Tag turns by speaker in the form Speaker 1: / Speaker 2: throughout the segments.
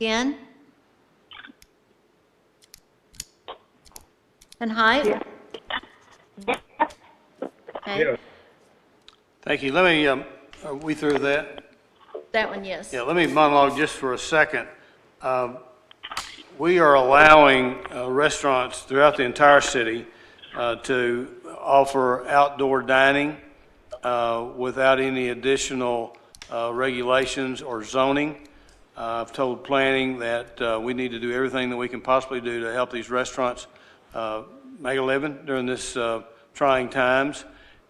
Speaker 1: Dan? And Hyde? Okay,
Speaker 2: Thank you. Let me, um, are we through that?
Speaker 1: that one, yes.
Speaker 2: Yeah, let me monologue just for a second. Um, We are allowing uh, restaurants throughout the entire city uh, to offer outdoor dining uh, without any additional uh, regulations or zoning. Uh, I've told planning that uh, we need to do everything that we can possibly do to help these restaurants uh, make a living during this uh, trying times,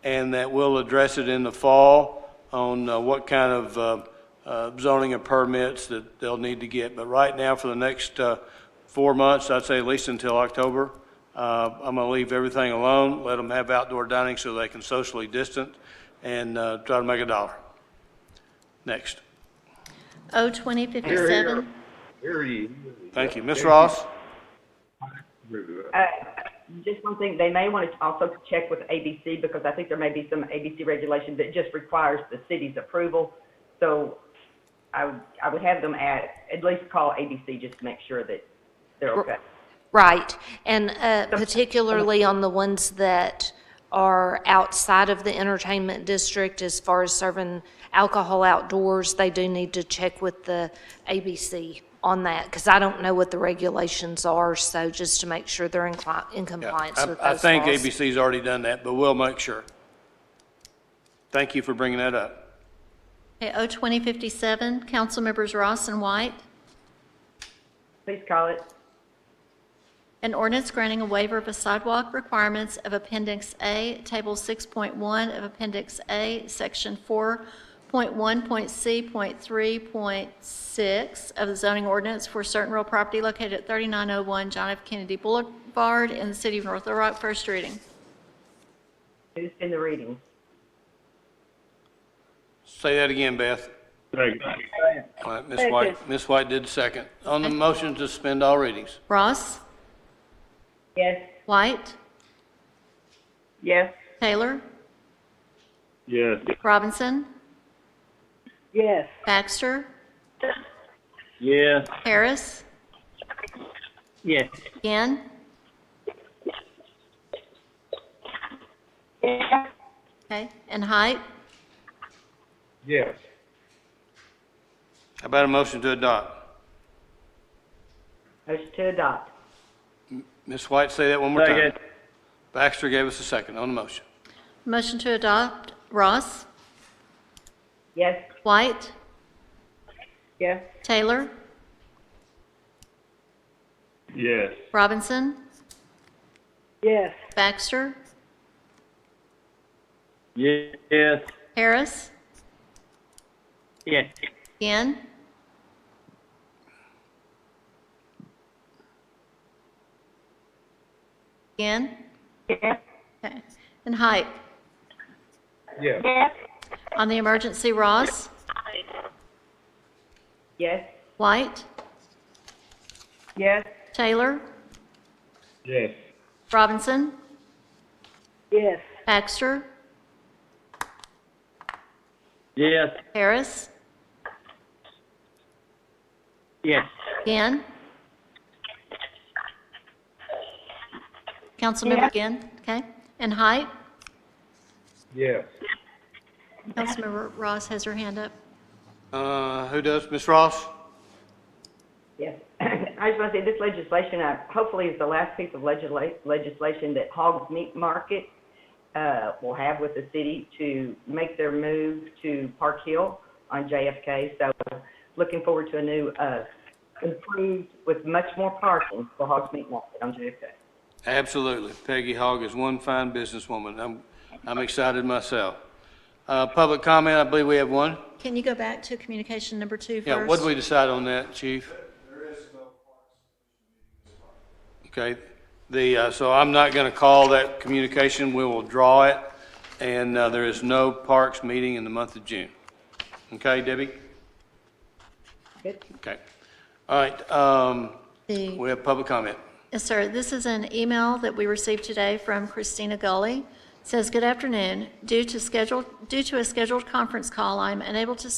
Speaker 2: and that we'll address it in the fall on uh, what kind of uh, uh, zoning and permits that they'll need to get. But right now, for the next uh, four months, I'd say at least until October, uh, I'm going to leave everything alone, let them have outdoor dining so they can socially distance, and uh, try to make a dollar. Next.
Speaker 1: O twenty fifty-seven,
Speaker 3: Hear ye, hear ye.
Speaker 2: Thank you. Ms. Ross?
Speaker 3: Approve that.
Speaker 4: Uh, Just one thing, they may want to also check with ABC because I think there may be some ABC regulation that just requires the city's approval. So I would, I would have them at, at least call ABC just to make sure that they're okay.
Speaker 5: Right, and uh, particularly on the ones that are outside of the entertainment district, as far as serving alcohol outdoors, they do need to check with the ABC on that, because I don't know what the regulations are, so just to make sure they're in cli- in compliance
Speaker 2: I-
Speaker 5: with those
Speaker 2: I think
Speaker 5: laws.
Speaker 2: ABC's already done that, but we'll make sure. Thank you for bringing that up.
Speaker 1: okay, O twenty fifty-seven, council members Ross and White.
Speaker 4: Please call it.
Speaker 1: An ordinance granting a waiver of a sidewalk requirements of Appendix A, Table 6.1 of Appendix A, Section 4.1.C.3.6 of the zoning ordinance for certain real property located at 3901 John F. Kennedy Boulevard in the city of North Little Rock, first reading.
Speaker 4: Who's in the reading?
Speaker 2: Say that again, Beth. All right, Ms. White, Ms. White did second. On the motion to suspend all readings.
Speaker 1: Ross,
Speaker 4: Yes?
Speaker 1: White,
Speaker 4: Yes.
Speaker 1: Taylor,
Speaker 3: Yes.
Speaker 1: Robinson,
Speaker 4: Yes.
Speaker 1: Baxter,
Speaker 3: Yes.
Speaker 1: Harris,
Speaker 3: Yes.
Speaker 1: Gann, okay, and Height.
Speaker 3: Yes.
Speaker 2: How about a motion to adopt?
Speaker 4: Motion to adopt.
Speaker 2: Ms. White, say that one more time. Baxter gave us a second on the motion.
Speaker 1: Motion to adopt, Ross,
Speaker 4: Yes?
Speaker 1: White,
Speaker 4: Yes.
Speaker 1: Taylor,
Speaker 3: Yes.
Speaker 1: Robinson,
Speaker 4: Yes.
Speaker 1: Baxter,
Speaker 3: Yes.
Speaker 1: Harris,
Speaker 3: Yes.
Speaker 1: Gann, Gann,
Speaker 4: Yes.
Speaker 1: okay, and Height.
Speaker 3: Yes.
Speaker 1: On the emergency, Ross,
Speaker 4: Yes?
Speaker 1: White,
Speaker 4: Yes.
Speaker 1: Taylor,
Speaker 3: Yes.
Speaker 1: Robinson,
Speaker 4: Yes.
Speaker 1: Baxter,
Speaker 3: Yes.
Speaker 1: Harris,
Speaker 3: Yes.
Speaker 1: Gann. Councilmember Gann, okay, and Height.
Speaker 3: Yes.
Speaker 1: Councilmember Ross has her hand up.
Speaker 2: Uh, Who does? Ms. Ross?
Speaker 4: Yes. I just want to say, this legislation, uh, hopefully is the last piece of legisla- legislation that Hogs Meat Market uh, will have with the city to make their move to Park Hill on JFK. So looking forward to a new, uh, improved with much more parking for Hogs Meat Market on JFK.
Speaker 2: Absolutely. Peggy Hogg is one fine businesswoman. I'm, I'm excited myself. Uh, Public comment, I believe we have one.
Speaker 1: Can you go back to communication number two first?
Speaker 2: Yeah, what did we decide on that, chief? Okay, the, uh, so I'm not going to call that communication, we will draw it, and uh, there is no parks meeting in the month of June. Okay, Debbie?
Speaker 4: Good.
Speaker 2: Okay. All right, um,
Speaker 1: The-
Speaker 2: we have public comment.
Speaker 1: Yes, sir. This is an email that we received today from Christina Gully. Says, "Good afternoon. Due to scheduled, due to a scheduled conference call, I am unable to